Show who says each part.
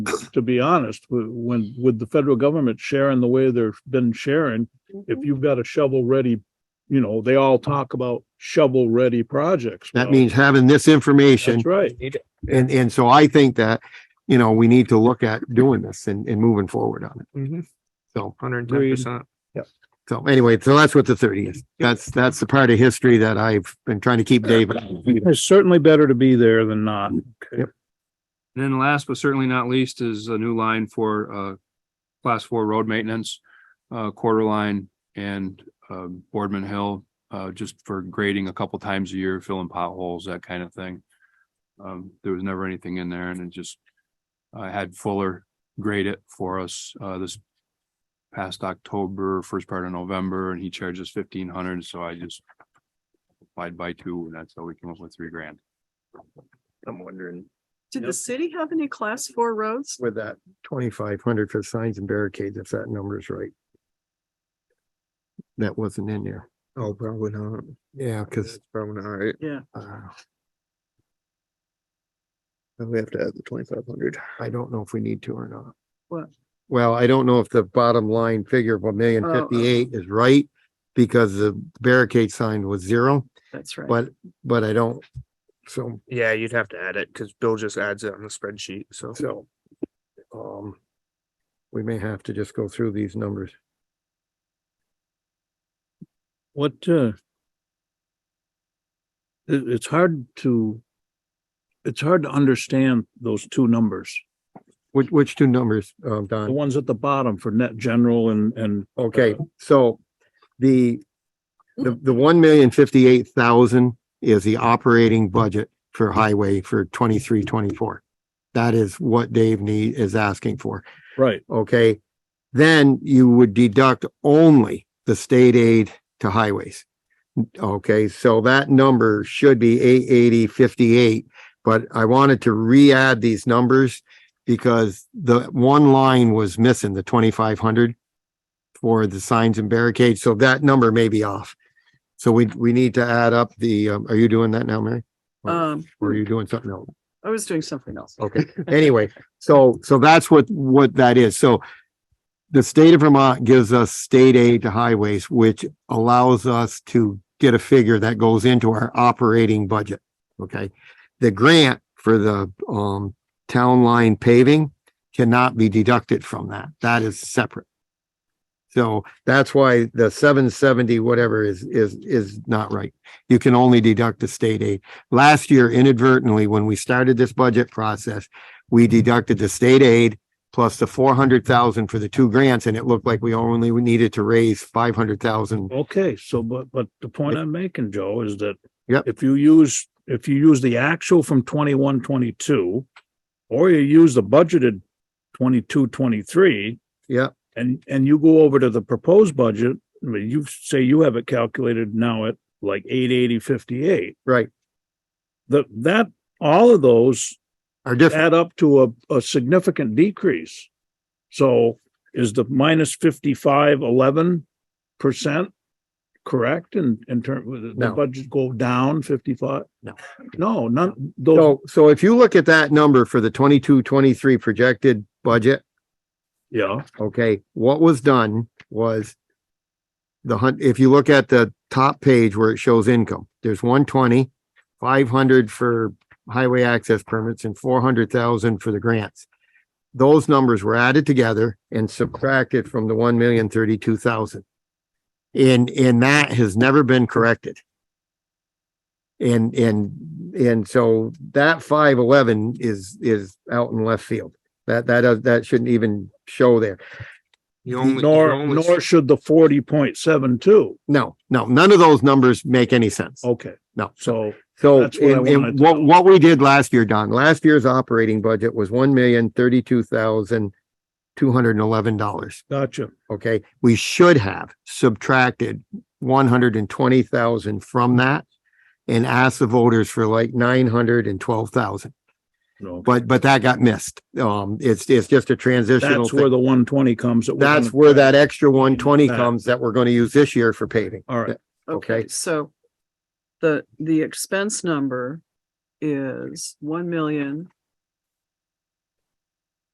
Speaker 1: to be honest, w- when, with the federal government sharing the way they've been sharing, if you've got a shovel-ready, you know, they all talk about shovel-ready projects.
Speaker 2: That
Speaker 1: now.
Speaker 2: means having this information.
Speaker 1: That's right.
Speaker 2: And, and so I think that, you know, we need to look at doing this and, and moving forward on it. So,
Speaker 3: Mm-hmm. Hundred and ten
Speaker 1: Agreed.
Speaker 3: percent.
Speaker 2: so anyway, so that's what the thirty is. That's, that's the part of history that I've been trying to keep David.
Speaker 1: It's certainly better to be there than not.
Speaker 3: And then last but certainly not least is a new line for uh class four road maintenance, uh quarter line and um Boardman Hill. Uh just for grading a couple times a year, filling potholes, that kind of thing. Um there was never anything in there and it just I had Fuller grade it for us uh this past October, first part of November, and he charged us fifteen hundred, so I just applied by two and that's how we came up with three grand.
Speaker 4: I'm wondering.
Speaker 5: Did the
Speaker 4: Yep.
Speaker 5: city have any class four roads?
Speaker 2: With that twenty-five hundred for signs and barricades, if that number is right. That wasn't in there.
Speaker 4: Oh, probably not.
Speaker 2: Yeah,
Speaker 4: Cause
Speaker 2: because,
Speaker 4: it's probably not right.
Speaker 2: uh,
Speaker 4: We have to add the twenty-five hundred.
Speaker 2: I don't know if we need to or not.
Speaker 5: What?
Speaker 2: Well, I don't know if the bottom line figure of a million
Speaker 5: Oh, oh.
Speaker 2: fifty-eight is right because the barricade sign was zero,
Speaker 5: That's right.
Speaker 2: but, but I don't. So,
Speaker 4: Yeah, you'd have to add it because Bill just adds it on the spreadsheet. So
Speaker 2: so, um, we may have to just go through these numbers.
Speaker 1: What, uh, it, it's hard to, it's hard to understand those two numbers.
Speaker 2: Which, which two numbers, um,
Speaker 1: The
Speaker 2: Don?
Speaker 1: ones at the bottom for net general and, and
Speaker 2: Okay, so the, the, the one million fifty-eight thousand is the operating budget for highway for twenty-three, twenty-four. That is what Dave need, is asking for.
Speaker 1: Right,
Speaker 2: okay? Then you would deduct only the state aid to highways. Okay, so that number should be eight eighty fifty-eight, but I wanted to re-add these numbers because the one line was missing, the twenty-five hundred for the signs and barricades, so that number may be off. So we, we need to add up the, um, are you doing that now, Mary?
Speaker 5: Um,
Speaker 2: Or are you doing something else?
Speaker 5: I was doing something else.
Speaker 2: Okay, anyway, so, so that's what, what that is. So the state of Vermont gives us state aid to highways, which allows us to get a figure that goes into our operating budget. Okay? The grant for the, um, town line paving cannot be deducted from that. That is separate. So that's why the seven seventy, whatever is, is, is not right. You can only deduct the state aid last year inadvertently, when we started this budget process, we deducted the state aid plus the four hundred thousand for the two grants, and it looked like we only needed to raise five hundred thousand.
Speaker 1: okay, so but, but the point I'm making, Joe, is that
Speaker 2: Yep.
Speaker 1: if you use, if you use the actual from twenty-one, twenty-two, or you use the budgeted twenty-two, twenty-three,
Speaker 2: Yeah,
Speaker 1: and, and you go over to the proposed budget, I mean, you say you have it calculated now at like eight eighty fifty-eight.
Speaker 2: right,
Speaker 1: The, that, all of those
Speaker 2: are different.
Speaker 1: add up to a, a significant decrease. So is the minus fifty-five, eleven percent correct in, in term, the
Speaker 2: No.
Speaker 1: budget go down fifty-five?
Speaker 2: No.
Speaker 1: No, not, those,
Speaker 2: So, so if you look at that number for the twenty-two, twenty-three projected budget,
Speaker 1: yeah,
Speaker 2: okay, what was done was the hun, if you look at the top page where it shows income, there's 120, 500 for highway access permits and four hundred thousand for the grants. Those numbers were added together and subtracted from the one million thirty-two thousand. And, and that has never been corrected. And, and, and so that five eleven is, is out in left field. That, that, does- that shouldn't even show there.
Speaker 3: You only- you
Speaker 1: nor,
Speaker 3: only-
Speaker 1: nor should the forty point seven two.
Speaker 2: No, no, none of those numbers make any sense.
Speaker 1: Okay.
Speaker 2: No.
Speaker 1: So,
Speaker 2: So
Speaker 1: Oh, That's what I
Speaker 2: and- and
Speaker 1: wanted to
Speaker 2: what,
Speaker 1: know.
Speaker 2: what we did last year, Don, last year's operating budget was one million thirty-two thousand two hundred and eleven dollars.
Speaker 1: gotcha.
Speaker 2: Okay, we should have subtracted one hundred and twenty thousand from that and asked the voters for like nine hundred and twelve thousand.
Speaker 1: No,
Speaker 2: But, but that got missed. Um, it's, it's just a transitional
Speaker 1: that's where
Speaker 2: thing.
Speaker 1: the one twenty comes. that we're
Speaker 2: That's
Speaker 1: gonna-
Speaker 2: where that extra one twenty
Speaker 1: Back.
Speaker 2: comes that we're going to use this year for paving.
Speaker 1: All right,
Speaker 2: Okay.
Speaker 5: Okay, so the, the expense number is one million,